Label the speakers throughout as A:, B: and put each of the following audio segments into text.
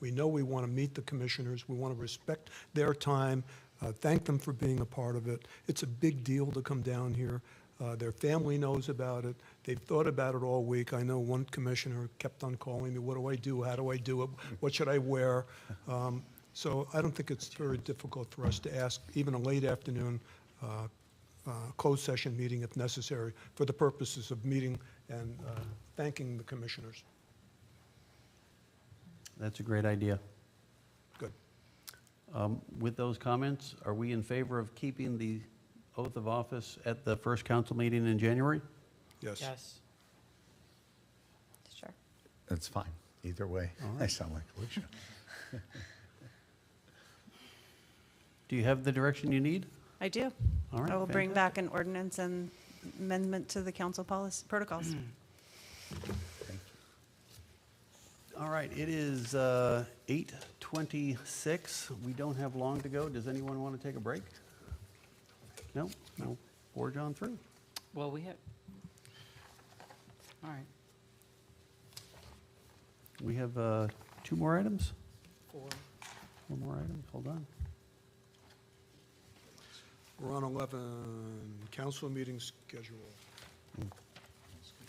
A: We know we want to meet the commissioners, we want to respect their time, uh, thank them for being a part of it. It's a big deal to come down here. Uh, Their family knows about it, they've thought about it all week. I know one commissioner kept on calling me, what do I do, how do I do it, what should I wear? Um, So I don't think it's very difficult for us to ask, even a late afternoon uh, uh, closed session meeting if necessary, for the purposes of meeting and uh, thanking the commissioners.
B: That's a great idea.
A: Good.
B: Um, With those comments, are we in favor of keeping the oath of office at the first council meeting in January?
A: Yes.
C: Yes.
D: Sure.
E: That's fine, either way. I sound like Alicia.
B: Do you have the direction you need?
D: I do.
B: All right.
D: I will bring
B: fantastic.
D: back an ordinance and amendment to the council policy, protocols.
B: All right, it is uh, 8:26. We don't have long to go. Does anyone want to take a break? No? No. Forge on through.
C: Well, we have, all right,
B: We have uh, two more items?
C: four.
B: One more item? Hold on.
A: We're on 11, council meeting schedule.
C: This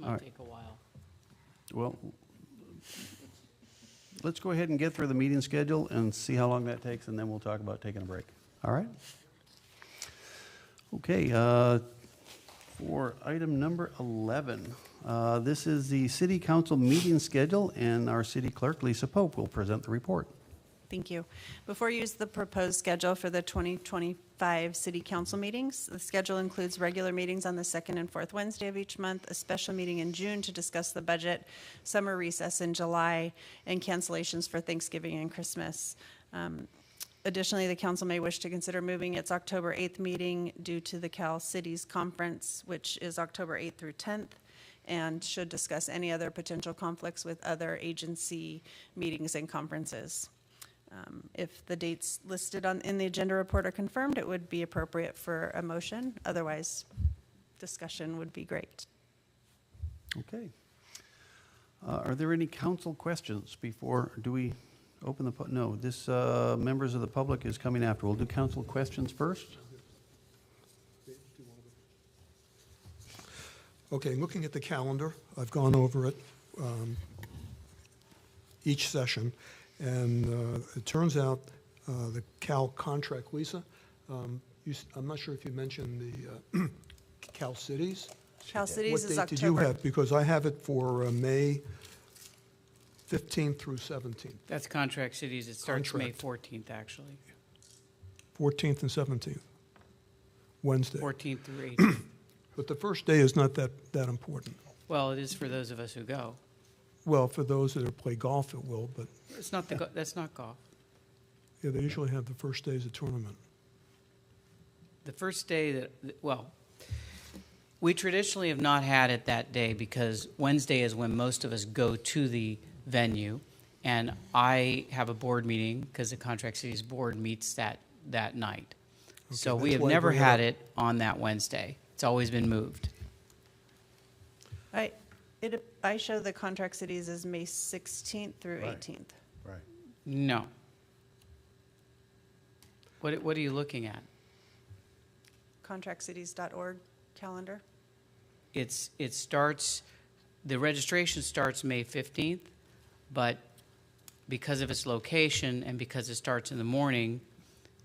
B: All
C: might
B: right.
C: take a while.
B: Well, let's go ahead and get through the meeting schedule and see how long that takes, and then we'll talk about taking a break. All right? Okay, uh, for item number 11, uh, this is the city council meeting schedule, and our city clerk, Lisa Pope, will present the report.
D: Thank you. Before you use the proposed schedule for the 2025 city council meetings, the schedule includes regular meetings on the second and fourth Wednesday of each month, a special meeting in June to discuss the budget, summer recess in July, and cancellations for Thanksgiving and Christmas. Um, Additionally, the council may wish to consider moving its October 8th meeting due to the Cal Cities Conference, which is October 8th through 10th, and should discuss any other potential conflicts with other agency meetings and conferences. Um, If the dates listed on, in the agenda report are confirmed, it would be appropriate for a motion. Otherwise, discussion would be great.
B: Okay. Uh, Are there any council questions before, do we open the, pu- no, this, uh, members of the public is coming after. We'll do council questions first.
A: Okay, looking at the calendar, I've gone over it um, each session, and uh, it turns out uh, the Cal contract, Lisa, um, you s- I'm not sure if you mentioned the uh, Cal Cities.
D: Cal Cities is
A: What date did you
D: October.
A: have? Because I have it for uh, May 15th through 17th,
C: That's contract cities. It starts May
A: Contract.
C: 14th, actually,
A: 14th and 17th, Wednesday.
C: 14th through 18th.
A: But the first day is not that, that important.
C: Well, it is for those of us who go.
A: Well, for those that play golf, it will, but
C: It's not the, go- that's not golf.
A: yeah, they usually have the first day as a tournament.
C: The first day that, well, we traditionally have not had it that day because Wednesday is when most of us go to the venue. And I have a board meeting because the Contract Cities Board meets that, that night. So we
A: that's
C: have
A: why I
C: never
A: bring it
C: had
A: up.
C: it on that Wednesday. It's always been moved.
D: I, it, I show the contract cities as May 16th through
E: Right.
D: 18th.
E: Right.
C: No. What, what are you looking at?
D: Contractcities.org calendar.
C: It's, it starts, the registration starts May 15th, but because of its location and because it starts in the morning,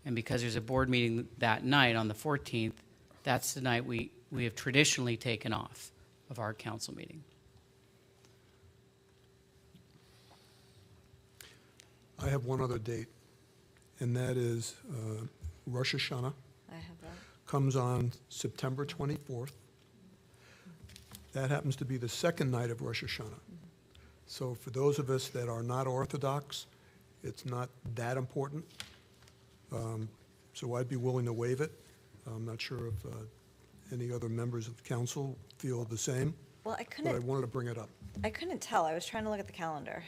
C: and because there's a board meeting that night on the 14th, that's the night we, we have traditionally taken off of our council meeting.
A: I have one other date, and that is uh, Rosh Hashanah
F: I have that.
A: comes on September 24th. That happens to be the second night of Rosh Hashanah. So for those of us that are not Orthodox, it's not that important. Um, So I'd be willing to waive it. I'm not sure if uh, any other members of council feel the same,
F: Well, I
A: but I
F: couldn't,
A: wanted to bring it up.
F: I couldn't tell. I was trying to look at the calendar.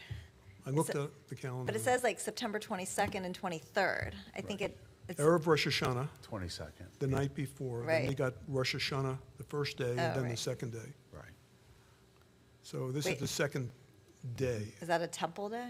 A: I looked
F: it-
A: at the calendar.
F: But it says like September 22nd and 23rd. I think it, it's,
A: Erev Rosh Hashanah,
E: 22nd.
A: the night before. Then they
F: Right.
A: got Rosh Hashanah the first day,
F: Oh,
A: and then the
F: right.
A: second day.
E: Right.
A: So this is
F: Wait.
A: the second day.
F: is that a temple day?